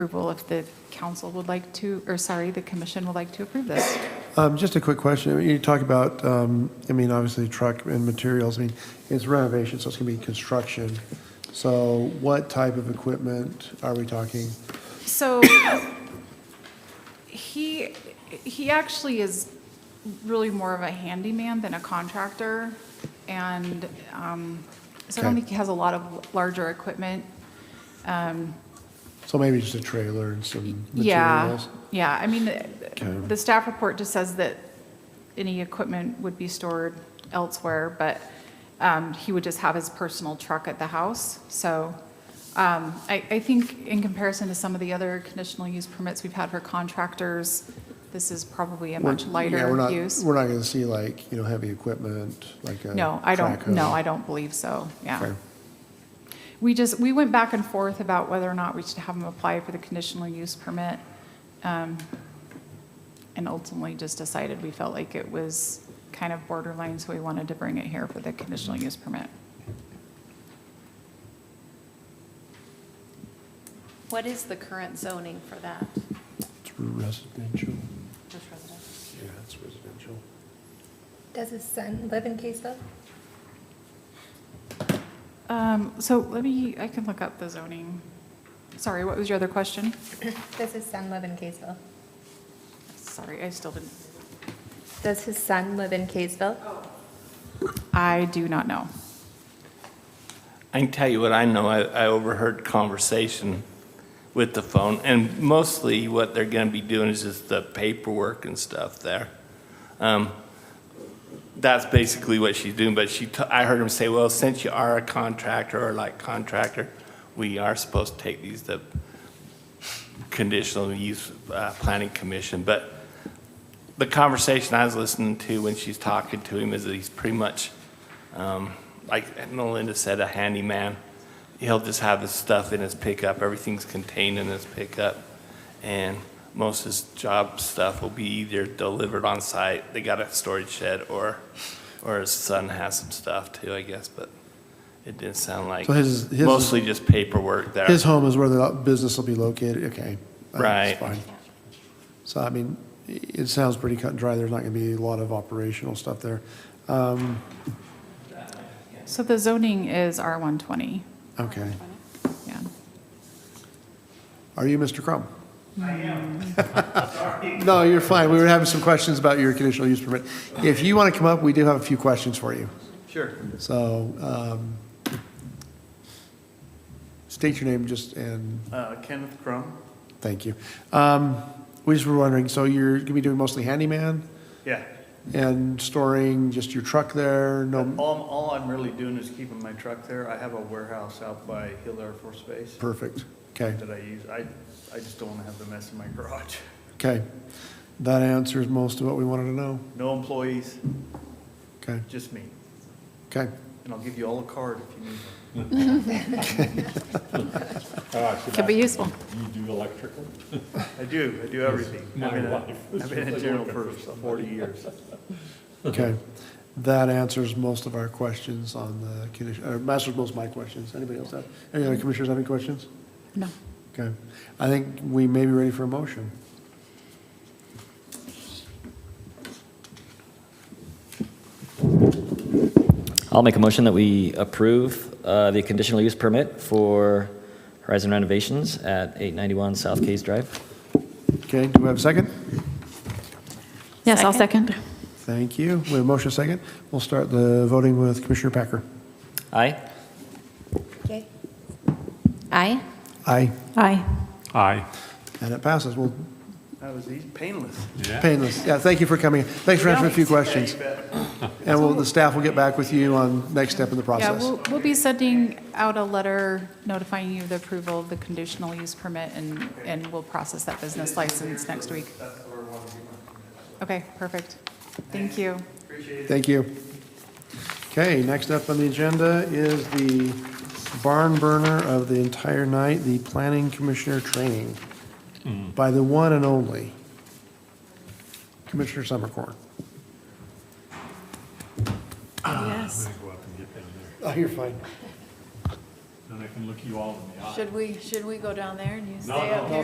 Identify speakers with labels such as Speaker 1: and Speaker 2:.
Speaker 1: approval if the council would like to, or sorry, the commission would like to approve this.
Speaker 2: Um, Just a quick question. I mean, You talk about, um, I mean, obviously truck and materials, I mean, it's renovation, so it's going to be construction. So what type of equipment are we talking?
Speaker 1: So he, he actually is really more of a handyman than a contractor. And um, so I don't
Speaker 2: Okay.
Speaker 1: think he has a lot of larger equipment.
Speaker 2: So maybe just a trailer and some
Speaker 1: Yeah,
Speaker 2: materials?
Speaker 1: yeah, I mean, the-
Speaker 2: Okay.
Speaker 1: the staff report just says that any equipment would be stored elsewhere, but um, he would just have his personal truck at the house. So um, I, I think in comparison to some of the other conditional use permits we've had for contractors, this is probably a
Speaker 2: We're-
Speaker 1: much
Speaker 2: yeah, we're
Speaker 1: lighter
Speaker 2: not-
Speaker 1: use.
Speaker 2: We're not going to see like, you know, heavy equipment, like a.
Speaker 1: No, I don't,
Speaker 2: track hoe.
Speaker 1: no, I don't believe so, yeah.
Speaker 2: Okay.
Speaker 1: We just, we went back and forth about whether or not we should have him apply for the conditional use permit. um, And ultimately just decided we felt like it was kind of borderline, so we wanted to bring it here for the conditional use permit.
Speaker 3: What is the current zoning for that?
Speaker 2: It's residential.
Speaker 3: Just residential.
Speaker 2: Yeah, it's residential.
Speaker 4: Does his son live in Kaysville?
Speaker 1: Um, So let me, I can look up the zoning. Sorry, what was your other question?
Speaker 4: Does his son live in Kaysville?
Speaker 1: Sorry, I still didn't.
Speaker 4: Does his son live in Kaysville?
Speaker 1: I do not know.
Speaker 5: I can tell you what I know. I, I overheard conversation with the phone, and mostly what they're going to be doing is just the paperwork and stuff there. Um, that's basically what she's doing. But she, t- I heard him say, "Well, since you are a contractor or like contractor, we are supposed to take these to conditional use uh, planning commission." But the conversation I was listening to when she's talking to him is that he's pretty much, um, like Melinda said, a handyman. He'll just have his stuff in his pickup, everything's contained in his pickup. And most of his job stuff will be either delivered on site, they got a storage shed, or, or his son has some stuff too, I guess, but it didn't sound like,
Speaker 2: So his- his-
Speaker 5: mostly just paperwork there.
Speaker 2: His home is where the business will be located, okay. That's
Speaker 5: Right.
Speaker 2: fine. So, I mean, i- it sounds pretty cut and dry, there's not going to be a lot of operational stuff there. Um,
Speaker 1: So the zoning is R120,
Speaker 2: Okay.
Speaker 1: yeah.
Speaker 2: Are you Mr. Crum? I am. No, you're fine, we were having some questions about your conditional use permit. If you want to come up, we do have a few questions for you.
Speaker 5: Sure.
Speaker 2: So um, state your name just, and
Speaker 6: Uh, Kenneth Crum.
Speaker 2: thank you. Um, We just were wondering, so you're going to be doing mostly handyman?
Speaker 6: Yeah.
Speaker 2: and storing just your truck there,
Speaker 6: All,
Speaker 2: no,
Speaker 6: all I'm really doing is keeping my truck there. I have a warehouse out by Hill Air Force Base
Speaker 2: perfect, okay,
Speaker 6: that I use. I, I just don't want to have the mess in my garage.
Speaker 2: okay. That answers most of what we wanted to know,
Speaker 6: No employees,
Speaker 2: okay,
Speaker 6: just me.
Speaker 2: okay.
Speaker 6: And I'll give you all a card if you need one.
Speaker 7: Uh, should
Speaker 1: Could be
Speaker 7: I-
Speaker 1: useful.
Speaker 7: You do electrical?
Speaker 6: I do, I do everything.
Speaker 7: My
Speaker 6: I've been a-
Speaker 7: wife was
Speaker 6: I've been a
Speaker 7: really
Speaker 6: general
Speaker 7: looking
Speaker 6: for
Speaker 7: for somebody.
Speaker 6: forty years.
Speaker 2: Okay, that answers most of our questions on the condition, or answers most of my questions. Anybody else have, any other commissioners have any questions?
Speaker 1: No.
Speaker 2: Okay, I think we may be ready for a motion.
Speaker 8: I'll make a motion that we approve uh, the conditional use permit for Horizon Renovations at 891 South Case Drive.
Speaker 2: Okay, do we have a second?
Speaker 3: Yes, I'll second.
Speaker 2: Thank you. We have a motion second. We'll start the voting with Commissioner Packer.
Speaker 8: Aye?
Speaker 4: Okay.
Speaker 3: Aye.
Speaker 2: Aye.
Speaker 3: Aye.
Speaker 7: Aye.
Speaker 2: And it passes. Well,
Speaker 6: That was easy, painless.
Speaker 2: painless. Yeah, thank you for coming. Thanks for answering a few questions.
Speaker 6: Yeah, you bet.
Speaker 2: And we'll, the staff will get back with you on next step in the
Speaker 1: Yeah,
Speaker 2: process.
Speaker 1: we'll, we'll be sending out a letter notifying you of the approval of the conditional use permit, and, and we'll process that business license next week. Okay, perfect. Thank you.
Speaker 2: Thank you. Okay, next up on the agenda is the barn burner of the entire night, the planning commissioner training by the one and only Commissioner Summercorn.
Speaker 3: Yes.
Speaker 7: Go up and get down there.
Speaker 2: Oh, you're fine.
Speaker 7: Then I can look you all in the eye.
Speaker 3: Should we, should we go down there and you
Speaker 7: No,
Speaker 3: stay
Speaker 7: no,
Speaker 3: up
Speaker 7: no.
Speaker 3: here?